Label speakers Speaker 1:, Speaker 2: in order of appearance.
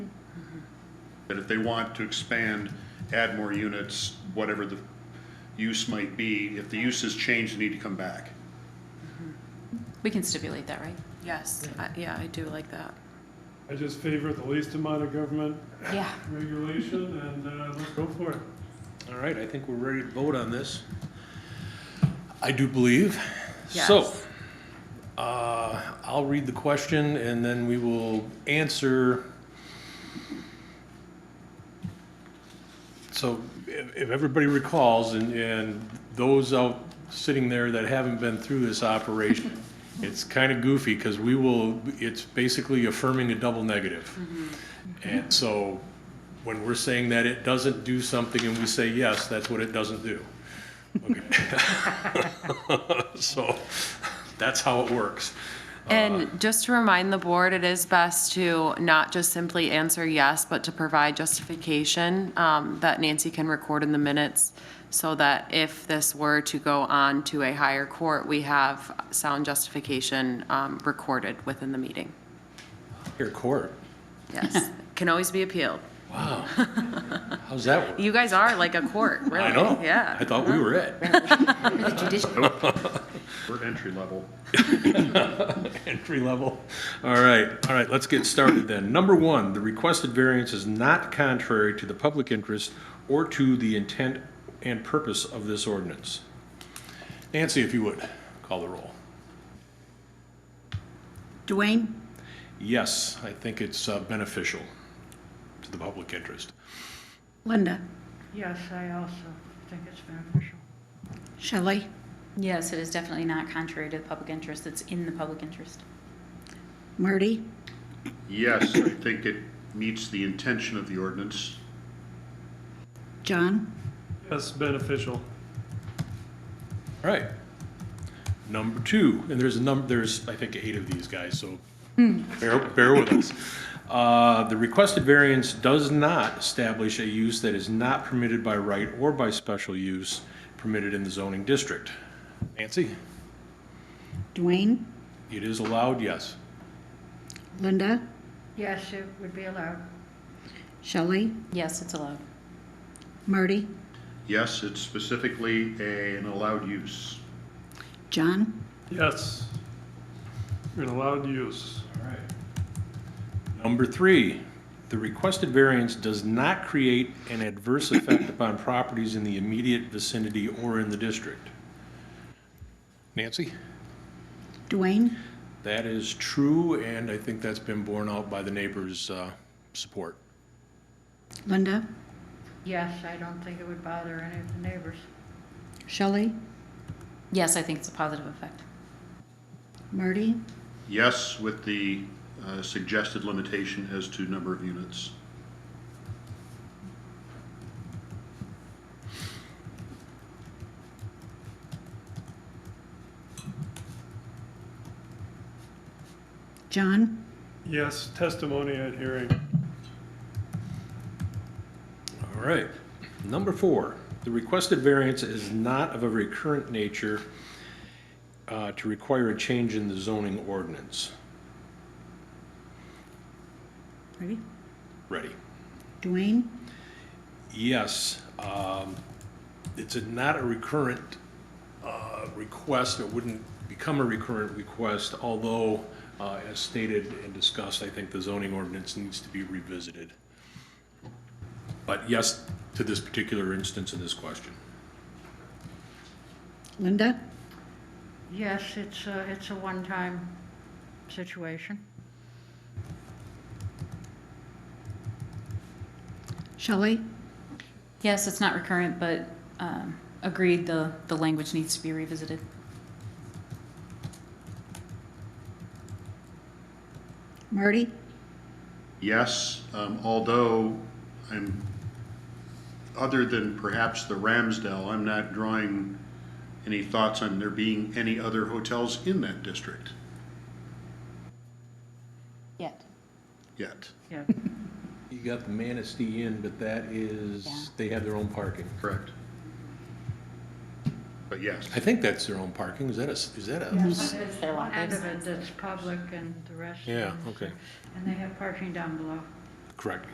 Speaker 1: That if they want to expand, add more units, whatever the use might be, if the use has changed, they need to come back.
Speaker 2: We can stipulate that, right?
Speaker 3: Yes, I- yeah, I do like that.
Speaker 4: I just favor the least amount of government
Speaker 2: Yeah.
Speaker 4: regulation, and uh, let's go for it.
Speaker 5: All right, I think we're ready to vote on this. I do believe. So,
Speaker 3: Yes.
Speaker 5: uh, I'll read the question and then we will answer. So if, if everybody recalls and, and those out sitting there that haven't been through this operation, it's kind of goofy because we will, it's basically affirming a double negative. And so when we're saying that it doesn't do something and we say yes, that's what it doesn't do. Okay. So that's how it works.
Speaker 3: And just to remind the board, it is best to not just simply answer yes, but to provide justification um, that Nancy can record in the minutes so that if this were to go on to a higher court, we have sound justification um, recorded within the meeting.
Speaker 5: Here, court.
Speaker 3: Yes, can always be appealed.
Speaker 5: Wow. How's that work?
Speaker 3: You guys are like a court, really.
Speaker 5: I know.
Speaker 3: Yeah. Uh-huh.
Speaker 5: I thought we were at
Speaker 1: We're entry level.
Speaker 5: entry level. All right, all right, let's get started then. Number one, the requested variance is not contrary to the public interest or to the intent and purpose of this ordinance. Nancy, if you would, call the roll.
Speaker 6: Dwayne,
Speaker 5: Yes, I think it's uh, beneficial to the public interest.
Speaker 6: Linda,
Speaker 7: Yes, I also think it's beneficial.
Speaker 6: Shelley,
Speaker 2: Yes, it is definitely not contrary to the public interest. It's in the public interest.
Speaker 6: Marty,
Speaker 1: Yes, I think it meets the intention of the ordinance.
Speaker 6: John,
Speaker 4: Yes, beneficial.
Speaker 5: All right. Number two, and there's a number, there's, I think, eight of these guys, so bear, bear with us. Uh, The requested variance does not establish a use that is not permitted by right or by special use permitted in the zoning district. Nancy,
Speaker 6: Dwayne,
Speaker 5: it is allowed, yes.
Speaker 6: Linda,
Speaker 7: Yes, it would be allowed.
Speaker 6: Shelley,
Speaker 2: Yes, it's allowed.
Speaker 6: Marty,
Speaker 1: Yes, it's specifically a- an allowed use.
Speaker 6: John,
Speaker 4: Yes. And allowed use.
Speaker 5: Number three, the requested variance does not create an adverse effect upon properties in the immediate vicinity or in the district. Nancy?
Speaker 6: Dwayne,
Speaker 5: That is true, and I think that's been borne out by the neighbors' uh, support.
Speaker 6: Linda,
Speaker 7: Yes, I don't think it would bother any of the neighbors.
Speaker 6: Shelley,
Speaker 2: Yes, I think it's a positive effect.
Speaker 6: Marty,
Speaker 1: Yes, with the uh, suggested limitation as to number of units.
Speaker 6: John,
Speaker 4: Yes, testimony at hearing.
Speaker 5: All right. Number four, the requested variance is not of a recurrent nature uh, to require a change in the zoning ordinance.
Speaker 6: ready?
Speaker 5: Ready?
Speaker 6: Dwayne,
Speaker 5: Yes. um, It's a- not a recurrent uh, request, it wouldn't become a recurrent request, although, uh, as stated and discussed, I think the zoning ordinance needs to be revisited. But yes, to this particular instance in this question.
Speaker 6: Linda,
Speaker 7: Yes, it's a, it's a one-time situation.
Speaker 6: Shelley,
Speaker 2: Yes, it's not recurrent, but um, agreed, the, the language needs to be revisited.
Speaker 6: Marty,
Speaker 1: Yes, um, although I'm, other than perhaps the Ramsdale, I'm not drawing any thoughts on there being any other hotels in that district
Speaker 2: Yet.
Speaker 1: yet.
Speaker 7: Yeah.
Speaker 5: You got the Manistee Inn, but that
Speaker 2: Yeah.
Speaker 5: is, they have their own parking.
Speaker 1: Correct. But yes,
Speaker 5: I think that's their own parking, is that a, is that a?
Speaker 7: Yes,
Speaker 2: It's
Speaker 7: there's
Speaker 2: their lot.
Speaker 7: one end of it that's public and the rest.
Speaker 5: Yeah,
Speaker 7: is-
Speaker 5: okay,
Speaker 7: And they have parking down below.
Speaker 5: correct.